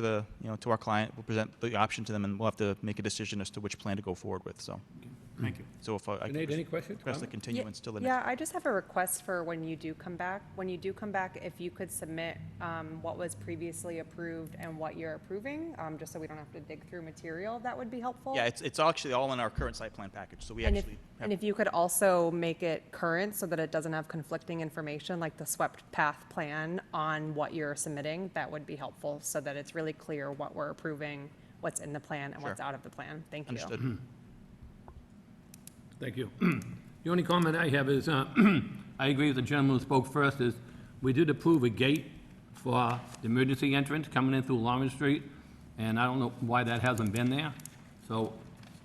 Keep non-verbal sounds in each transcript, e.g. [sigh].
to the, you know, to our client, we'll present the option to them, and we'll have to make a decision as to which plan to go forward with, so. Thank you. So if I- I Sinead, any could questions? request the comments? Ye- continuance till the next. Yeah, I just have a request for when you do come back, when you do come back, if you could submit um, what was previously approved and what you're approving, um, just so we don't have to dig through material, that would be helpful. Yeah, it's, it's actually all in our current site plan package, so we And if, actually and have, if you could also make it current so that it doesn't have conflicting information, like the swept path plan on what you're submitting, that would be helpful, so that it's really clear what we're approving, what's in the plan and what's Sure. out of the plan. Thank you. understood. Thank you. [clears throat] The only comment I have is, uh, [clears throat] I agree with the gentleman who spoke first, is we did approve a gate for the emergency entrance coming in through Lawrence Street, and I don't know why that hasn't been there. So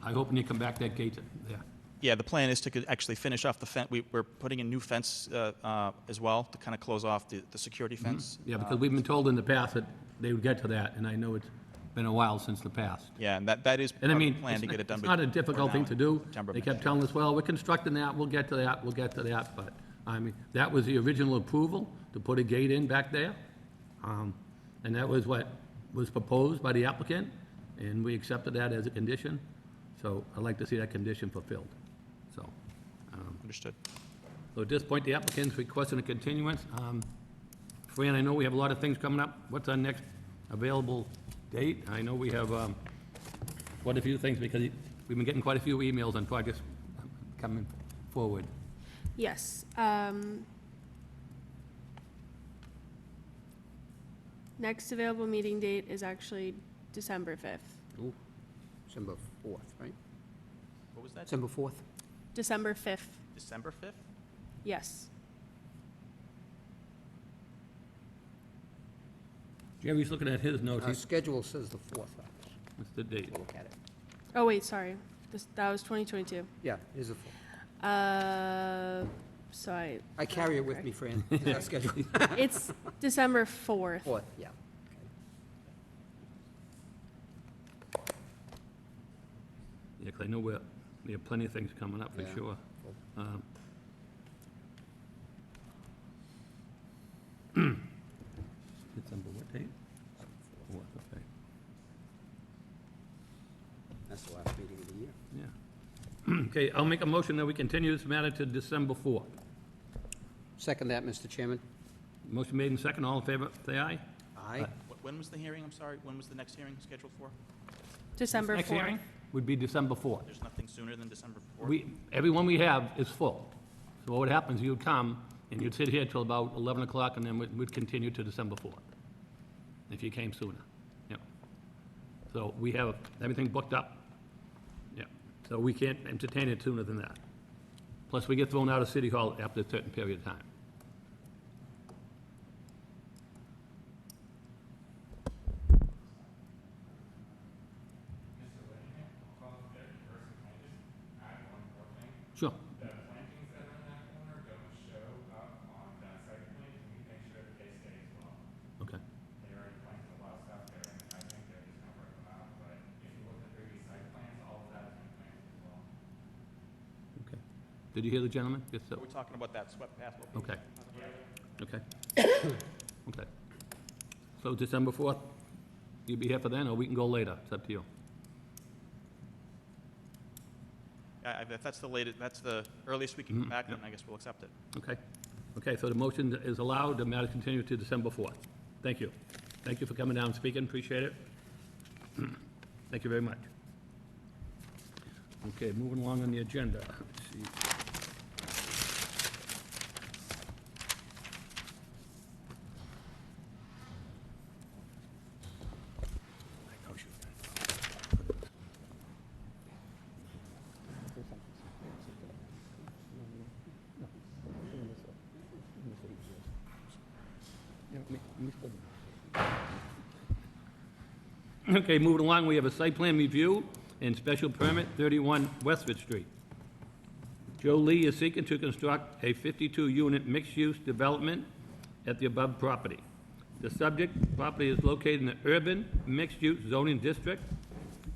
I hope when you come back, that gate's there. [clears throat] Yeah, the plan is to could actually finish off the fence, we, we're putting in new fence, uh, uh, as well, to kind of close off the, the security fence. Mm-hmm. Yeah, because we've been told in the past that they would get to that, and I know it's been a while since the past. Yeah, and that, that is part And I of the mean, plan it's to get it done. it's be- not a before difficult now thing in to do. September of They next kept year. telling us, well, we're constructing that, we'll get to that, we'll get to that, but, I mean, that was the original approval to put a gate in back there. Um, And that was what was proposed by the applicant, and we accepted that as a condition. So I'd like to see that condition fulfilled. So, Understood. so at this point, the applicant's requesting a continuance. Um, Fran, I know we have a lot of things coming up. What's our next available date? I know we have um, quite a few things, because we've been getting quite a few emails on projects coming forward. Yes. um, Next available meeting date is actually December 5th. Ooh, December 4th, right? What was that, December 4th? December 5th, December fifth? yes. Jerry's looking at his notes. Our He's- schedule says the 4th. What's the date? We'll look at it. Oh, wait, sorry. This- That was 2022. Yeah, it is the 4th. Uh, So I, I carry it with me, Fran. It's our schedule. it's December 4th. 4th, yeah. Yeah, 'cause I know we're, we have plenty of things coming up, for Yeah. sure. Um, [clears throat] December what date? Fourth, okay, That's the last meeting of the year. yeah. [clears throat] Okay, I'll make a motion that we continue this matter to December 4th. Second that, Mr. Chairman. Motion made and second, all in favor, say aye. Aye. When was the hearing, I'm sorry, when was the next hearing scheduled for? December Next hearing 4th. Would be December 4th. There's nothing sooner than December fourth? We, everyone we have is full. So what happens, you'd come, and you'd sit here till about 11 o'clock, and then we'd, we'd continue to December 4th, if you came sooner. Yep. So we have everything booked up. Yep. So we can't entertain it sooner than that. Plus, we get thrown out of City Hall after a certain period of time. Sure. The plantings that are in that corner don't show up on that site plan, can we make sure that they stay as well? Okay. They already planted a lot of stuff there, and I think they're just gonna rip them out, but if you look at the previous site plans, all of that has been planted as well. Okay. Did you hear the gentleman? Yes, sir. We're talking about that swept path location. Okay. Okay. [coughs] Okay. So December 4th, you'll be here for then, or we can go later? It's up to you. I- I- If that's the latest, that's the earliest we can come back, then I guess we'll accept it. Okay? Okay, so the motion is allowed, the matter continues to December 4th. Thank you. Thank you for coming down and speaking, appreciate it. [clears throat] Thank you very much. Okay, moving along on the agenda. Let's see. Okay, moving along, we have a site plan review and special permit, 31 Westford Street. Joe Lee is seeking to construct a 52-unit mixed-use development at the above property. The subject property is located in the urban mixed-use zoning district.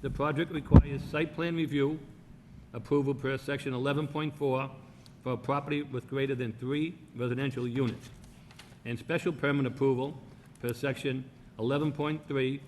The project requires site plan review approval per section 11.4 for a property with greater than three residential units and special permit approval per section 11.3